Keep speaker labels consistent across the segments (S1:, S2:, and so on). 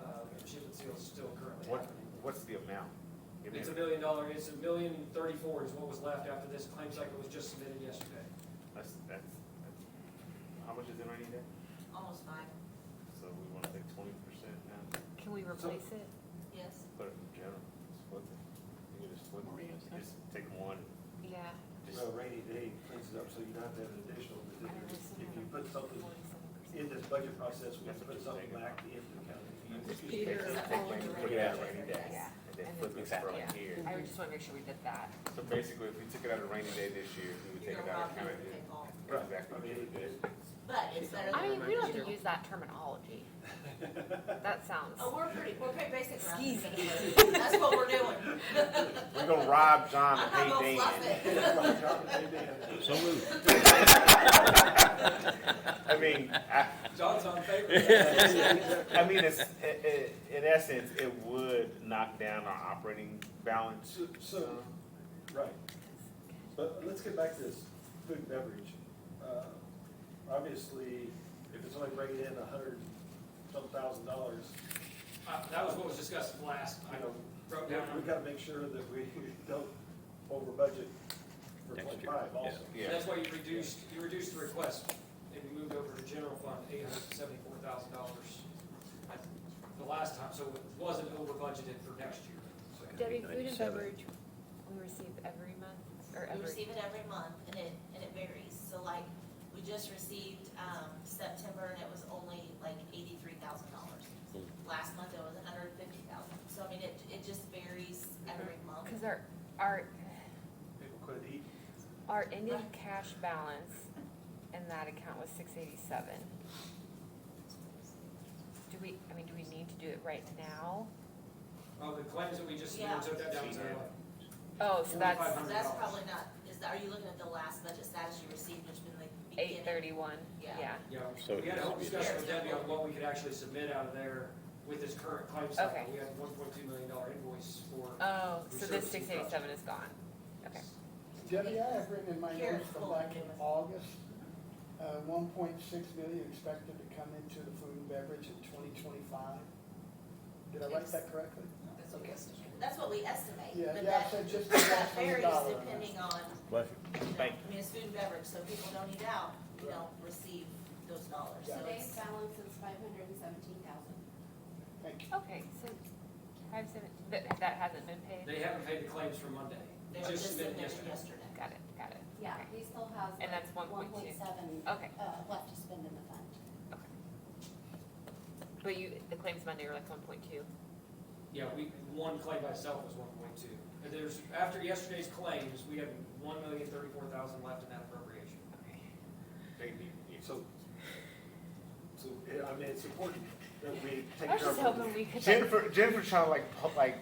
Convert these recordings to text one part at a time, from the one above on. S1: uh,
S2: What, what's the amount? Give me
S1: It's a
S2: a-
S1: million dollar, it's a million thirty-four is what was left after this claim cycle was just submitted yesterday.
S2: That's, that's, that's- how much is in rainy day?
S3: Almost five,
S2: So we wanna say twenty percent now,
S4: Can we replace it?
S3: yes.
S2: put it in general, split it. You can just split it, just take one,
S4: Yeah.
S2: just,
S5: So a rainy day cleans it up, so you don't have to have an additional, but then if you put something in this budget process, we have to put something back into the county.
S2: take,
S4: Peter,
S2: take rainy, put it out rainy day,
S4: Yeah.
S2: and then
S4: And
S2: flip
S4: then-
S2: it from
S4: yeah.
S2: here.
S4: I would just want to make sure we did that.
S2: So basically, if we took it out of rainy day this year, we would
S3: You're
S2: take it
S3: gonna
S2: out of
S3: rob them
S2: county.
S3: if they call.
S5: Right.
S2: Exactly what you
S5: I mean,
S2: would do.
S3: But it's better
S4: I mean,
S3: than.
S4: we don't have to use that terminology. That sounds,
S3: Oh, we're pretty, we're pretty basic around here.
S4: Skeezy.
S3: That's what we're doing.
S2: We're gonna rob John
S3: I'm
S2: and
S3: not gonna
S2: pay
S3: fluff
S2: Dan.
S3: it.
S5: So
S2: I mean, I,
S1: John's on paper.
S2: I mean, it's, i- i- in essence, it would knock down our operating balance.
S5: So, right, but let's get back to this food and beverage. Uh, Obviously, if it's only bringing in a hundred some thousand dollars,
S1: Uh, That was what was discussed last, I
S5: you know,
S1: wrote down.
S5: we gotta make sure that we don't over budget for
S6: Next year,
S5: twenty-five
S1: And
S5: also.
S2: Yeah,
S1: that's why you reduced, you reduced the request, and you moved over to general fund, eight hundred and seventy-four thousand dollars the last time, so it wasn't over budgeted for next year. So
S4: Debbie, food and
S6: 97.
S4: beverage, we receive every month or
S3: We
S4: every,
S3: receive it every month and it, and it varies. So like, we just received, um, September and it was only like eighty-three thousand dollars.
S2: Hmm.
S3: Last month it was a hundred and fifty thousand. So I mean, it, it just varies every month.
S4: because our, our,
S5: People quit eating.
S4: our ending cash balance in that account was six eighty-seven. Do we, I mean, do we need to do it right now?
S1: Oh, the claims that we just, we
S3: Yeah.
S1: took that down to,
S4: Oh, so that's
S3: So that's probably not, is, that- are you looking at the last budget status you received, which been like beginning?
S4: eight thirty-one,
S3: Yeah.
S4: yeah.
S1: yeah,
S6: So
S1: we had a
S6: it
S1: whole
S6: needs to be-
S1: discussion with Debbie on what we could actually submit out of there with this current claim cycle.
S4: Okay.
S1: We had one point two million dollar invoice for,
S4: Oh, so
S1: Reserve
S4: this
S1: is in
S4: six eighty-seven is gone, okay.
S7: Debbie, I have written in my
S3: Here,
S7: notes from
S3: hold on,
S7: back in
S3: give us-
S7: August, uh, one point six million expected to come into the food and beverage in twenty twenty-five. Did I write that correctly?
S3: That's what we estimate. That's what we estimate.
S7: Yeah,
S3: but
S7: yeah,
S3: that-
S7: I said just the
S3: That
S7: last million
S3: varies
S7: dollar.
S3: depending on,
S6: Bless
S3: you know,
S2: Thank
S3: I mean, it's food and beverage, so people don't eat out, you don't receive those dollars, so
S8: Today's
S3: it's.
S8: balance is five hundred and seventeen thousand.
S7: Thank you.
S4: Okay, so five seven, that, that hasn't been paid?
S1: they haven't paid the claims for Monday.
S3: They were just
S1: submitted
S3: submitted yesterday.
S4: Got it, got it.
S8: Yeah,
S4: Okay.
S8: he still has
S4: And that's
S8: one
S4: 1.2.
S8: point seven, uh,
S4: Okay,
S8: left to spend in the fund.
S4: but you, the claims Monday were like one point two.
S1: Yeah, we, one claim by itself was one point two. And there's, after yesterday's claims, we had one million thirty-four thousand left in that appropriation.
S4: Okay.
S2: they need, yeah.
S5: So, so, yeah, I mean, it's important that we take
S4: I was
S5: care
S4: just
S5: of.
S4: hoping we could. like-
S2: Jennifer, Jennifer trying to like, po- like,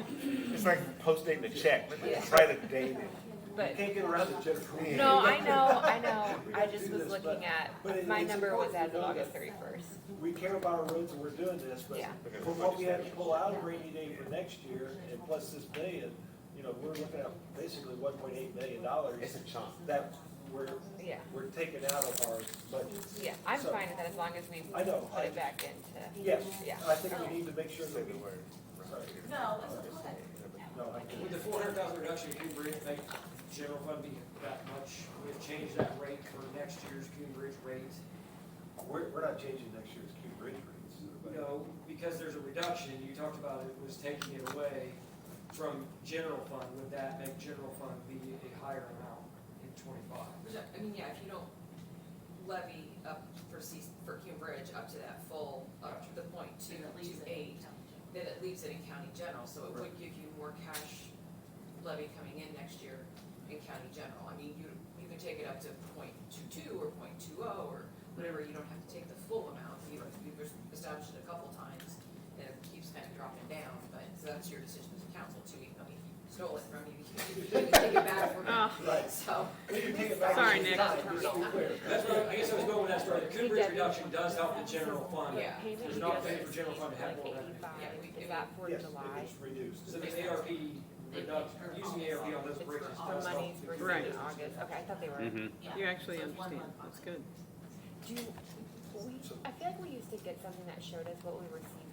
S2: it's like post dating a check, Let's just write a date. in.
S5: You
S4: But,
S5: can't get around the Jennifer.
S2: Yeah.
S4: no, I know, I know,
S5: We
S4: I
S5: gotta
S4: just
S5: do
S4: was
S5: this,
S4: looking
S5: but- but
S4: at,
S5: it-
S4: my
S5: it's
S4: number was
S5: important
S4: as
S5: to
S4: of
S5: know
S4: August
S5: that-
S4: thirty-first.
S5: We care about our roads and we're doing this, but
S4: Yeah.
S5: from what we had to pull out of rainy day for next year and plus this million, you know, we're looking at basically one point eight million dollars
S2: It's a chunk.
S5: that we're,
S4: Yeah,
S5: we're taking out of our budget.
S4: yeah, I'm
S5: So-
S4: fine with that as long as we
S5: I know,
S4: put
S5: I-
S4: it back into,
S5: Yes,
S4: Yeah. Um,
S5: I think we need to make sure
S2: Say
S5: that
S2: the
S5: we,
S2: word.
S5: sorry,
S3: No, it's okay.
S5: no, I
S1: With
S5: can't.
S1: the four hundred thousand reduction in Coon Bridge, make general fund be that much, we've changed that rate for next year's Coon Bridge rate.
S5: We're, we're not changing next year's Q bridge rates. but-
S1: No, because there's a reduction, you talked about it was taking it away from general fund, would that make general fund be a higher amount in twenty-five?
S9: Which, I I mean, yeah, if you don't levy up for C, for Cume Bridge up to that full, up to the point two,
S3: And it leaves
S9: two
S3: it.
S9: eight, then it leaves it in county general, so it would give you more cash levy coming in next year in county general. I mean, you, you can take it up to point two two or point two oh or whatever, you don't have to take the full amount. You, you've established it a couple times, and it keeps kind of dropping down, but, so that's your decision as a council too, even though you stole it from you, you can take it back from
S5: Right.
S3: Ah.
S9: it, so.
S5: We can take it back.
S4: Sorry,
S5: It's
S4: Nick.
S5: not- just to be clear.
S1: That's what, I- I guess I was going with that story, the Coon Bridge reduction does help the general fund.
S9: Yeah.
S4: payment
S1: There's
S4: you
S1: not
S4: get
S1: pay for
S4: is
S1: general fund to have
S4: like
S1: more revenue.
S4: 85.
S9: Yeah, we
S4: Is
S9: do.
S4: that for
S5: Yes, if
S4: July?
S5: it's reduced.
S1: So the ARP, reduct- using the ARP on those
S4: It's
S1: bridges
S4: for
S1: does help.
S4: monies
S1: the-
S4: were due in August, okay, I thought they
S2: Mm-hmm.
S4: were.
S3: Yeah.
S10: You actually
S3: So it's one
S10: understand,
S3: month.
S10: that's good.
S4: Do, you- we, I feel like we used to get something that showed us what we received